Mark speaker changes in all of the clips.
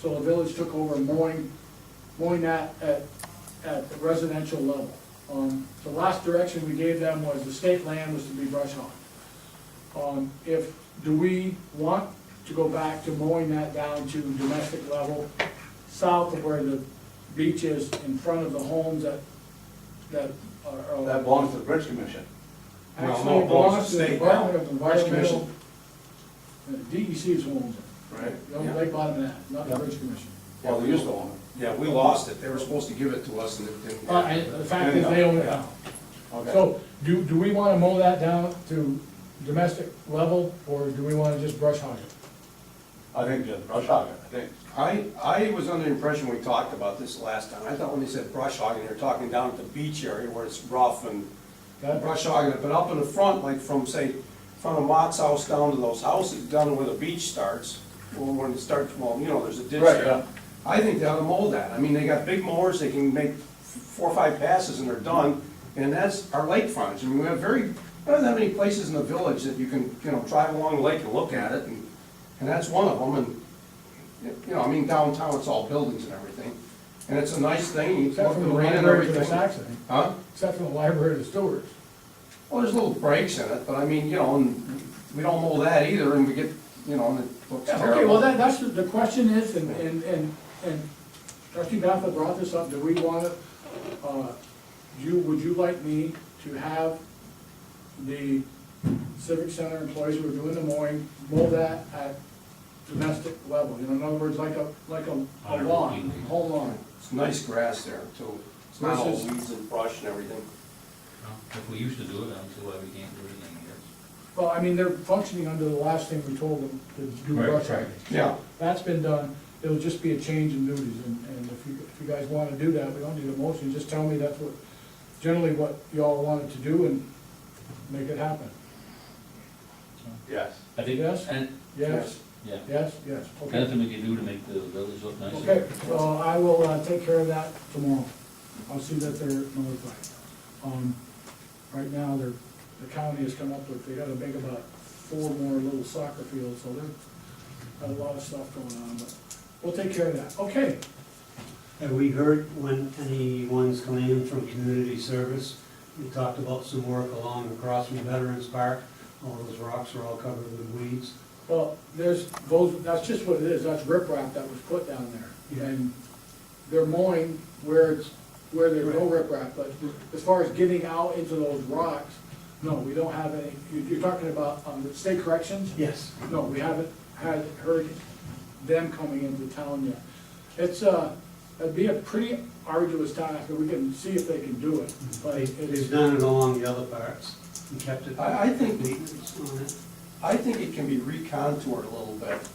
Speaker 1: So the village took over mowing, mowing that at, at the residential level. Um, the last direction we gave them was the state land was to be brush hogged. Um, if, do we want to go back to mowing that down to domestic level, south of where the beach is in front of the homes that, that are.
Speaker 2: That belongs to the Bridge Commission.
Speaker 3: No, no,
Speaker 1: Actually, it
Speaker 3: belongs
Speaker 1: belongs
Speaker 3: to
Speaker 1: to
Speaker 3: the
Speaker 1: the
Speaker 3: state
Speaker 1: Department
Speaker 3: now.
Speaker 1: of
Speaker 3: Forest Commission.
Speaker 1: Environmental. uh, DEC is who owns it.
Speaker 2: Right.
Speaker 3: Yeah.
Speaker 1: No, they bought it now, not the
Speaker 3: Yeah.
Speaker 1: Bridge Commission.
Speaker 2: Well, they used to own
Speaker 3: Yeah, we lost it. They were supposed to give it to us and it didn't.
Speaker 1: Uh, and the fact is, they own it now.
Speaker 2: it. Okay.
Speaker 1: So, do, do we wanna mow that down to domestic level, or do we wanna just brush hog it?
Speaker 2: I think just brush hog it, I think.
Speaker 3: I, I was under the impression we talked about this last time. I thought when they said brush hogging, they're talking down at the beach area where it's rough and
Speaker 1: That-
Speaker 3: brush hogging it, but up in the front, like from, say, front of Mott's house down to those houses, down where the beach starts, or when it starts, well, you know, there's a ditch
Speaker 2: Right,
Speaker 3: there.
Speaker 2: yeah.
Speaker 3: I think they ought to mow that. I mean, they got big mowers, they can make four or five passes and they're done, and that's our lake frontage. I mean, we have very, we don't have many places in the village that you can, you know, drive along the lake and look at it, and, and that's one of them, and you know, I mean, downtown, it's all buildings and everything, and it's a nice thing, you
Speaker 1: Except
Speaker 3: look
Speaker 1: for
Speaker 3: at
Speaker 1: the
Speaker 3: the rain and
Speaker 1: library to the
Speaker 3: everything.
Speaker 1: Saxon,
Speaker 3: Huh?
Speaker 1: except for the library to Stewart's.
Speaker 3: Well, there's little breaks in it, but I mean, you know, and we don't mow that either, and we get, you know, and it looks
Speaker 1: Yeah, okay, well,
Speaker 3: terrible.
Speaker 1: that, that's, the- the question is, and, and, and, and trustee Baffa brought this up, do we want to, uh, you, would you like me to have the civic center employees who are doing the mowing, mow that at domestic level, you know, in other words, like a, like a a lawn, whole lawn?
Speaker 3: It's nice grass there, too. It's not all weeds and brush and everything.
Speaker 4: Well, If we used to do it, I don't see why we can't do it again, I guess.
Speaker 1: Well, I mean, they're functioning under the last thing we told them to do
Speaker 4: Right,
Speaker 1: brush
Speaker 4: right.
Speaker 1: hogging.
Speaker 3: Yeah.
Speaker 1: That's been done, it'll just be a change in duties, and, and if you, if you guys wanna do that, we don't need a motion, just tell me that's what, generally what y'all wanted to do and make it happen.
Speaker 2: Yes.
Speaker 4: I think,
Speaker 1: Yes?
Speaker 4: and,
Speaker 1: Yes,
Speaker 4: yeah,
Speaker 1: yes, yes, okay.
Speaker 4: nothing we can do to make the village look nicer.
Speaker 1: Okay, well, I will, uh, take care of that tomorrow, I'll see that they're notified. Um, right now, they're, the county has come up with, they gotta make about four more little soccer fields, so there's got a lot of stuff going on, but we'll take care of that, okay.
Speaker 5: Have we heard when anyone's coming in from community service? We talked about some work along across from Veterans Park. All those rocks are all covered with weeds.
Speaker 1: Well, there's, those, that's just what it is, that's riprap that was put down there. And they're mowing where it's, where there's no riprap, but as far as getting out into those rocks, no, we don't have any, You- you're talking about, um, the state corrections?
Speaker 5: Yes.
Speaker 1: No, we haven't had, heard them coming into town yet. It's, uh, it'd be a pretty arduous task, but we can see if they can do it, but
Speaker 5: They-
Speaker 1: it's.
Speaker 5: They've done it along the other parts and kept it.
Speaker 3: I- I think-
Speaker 5: maintenance on it.
Speaker 3: I think it can be recontoured a little bit,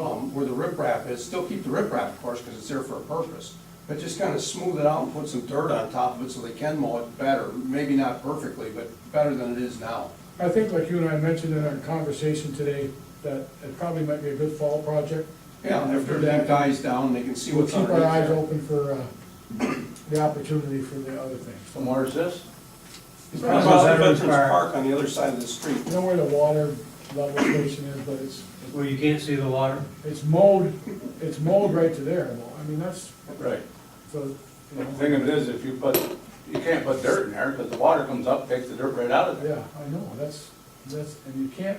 Speaker 3: um, where the riprap is, still keep the riprap, of course, because it's there for a purpose, but just kind of smooth it out and put some dirt on top of it so they can mow it better, maybe not perfectly, but better than it is now.
Speaker 1: I think like you and I mentioned in our conversation today, that it probably might be a good fall project.
Speaker 3: Yeah, and after that dies down, they can see
Speaker 1: We'll
Speaker 3: what's
Speaker 1: keep our eyes
Speaker 3: underneath
Speaker 1: open for uh, the opportunity for the other things.
Speaker 2: So where's this?
Speaker 3: there. How
Speaker 1: You
Speaker 3: about
Speaker 5: Veterans
Speaker 3: Veterans
Speaker 5: Park.
Speaker 3: Park on the other side of the street?
Speaker 1: know where the water level station is, but it's,
Speaker 5: Where you can't see the water.
Speaker 1: it's mowed, it's mowed right to there. Well, I mean, that's,
Speaker 2: Right.
Speaker 1: so, you
Speaker 2: The
Speaker 1: know,
Speaker 2: thing of it is, if you put, you can't put dirt in there, because the water comes up, takes the dirt right out of there.
Speaker 1: yeah, I know, that's, that's, and you can't,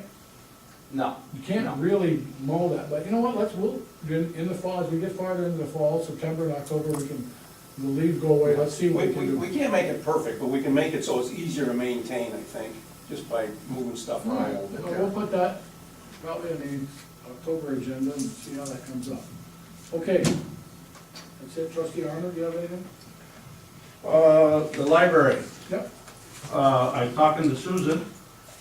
Speaker 2: No.
Speaker 1: you can't really mow that, but you know what, let's, we'll, in, in the fall, as we get farther into the fall, September and October, we can, the leaves go away, let's see what
Speaker 3: We,
Speaker 1: we can
Speaker 3: we,
Speaker 1: do.
Speaker 3: we can't make it perfect, but we can make it so it's easier to maintain, I think, just by moving stuff
Speaker 1: All right,
Speaker 3: around a
Speaker 1: well,
Speaker 3: little
Speaker 1: We'll
Speaker 3: bit.
Speaker 1: put that probably in the October agenda and see how that comes up. Okay, that's it, trustee Arnold, do you have anything?
Speaker 6: Uh, the library,
Speaker 1: Yep.
Speaker 6: uh, I talked to Susan,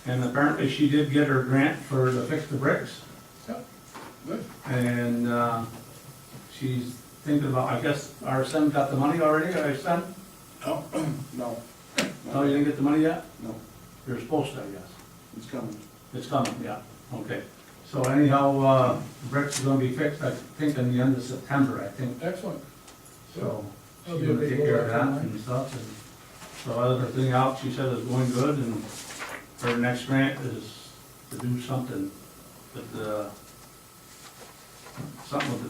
Speaker 6: and apparently she did get her grant for the Fix the Bricks,
Speaker 1: Yep. Good.
Speaker 6: and, uh, she's thinking about, I guess our son got the money already, our son?
Speaker 3: No,
Speaker 6: No, you didn't get the money yet?
Speaker 3: no,
Speaker 6: You're supposed to, I guess.
Speaker 3: it's coming.
Speaker 6: It's coming, yeah, okay. So anyhow, uh, bricks are gonna be fixed, I think, in the end of September, I think,
Speaker 1: Excellent.
Speaker 6: so.
Speaker 1: That'll
Speaker 6: She's
Speaker 1: be a
Speaker 6: gonna
Speaker 1: big
Speaker 6: take care of
Speaker 1: blow up
Speaker 6: that and stuff, and so other thing out, she said is going good, and her next grant is to do uh, something with the, something with the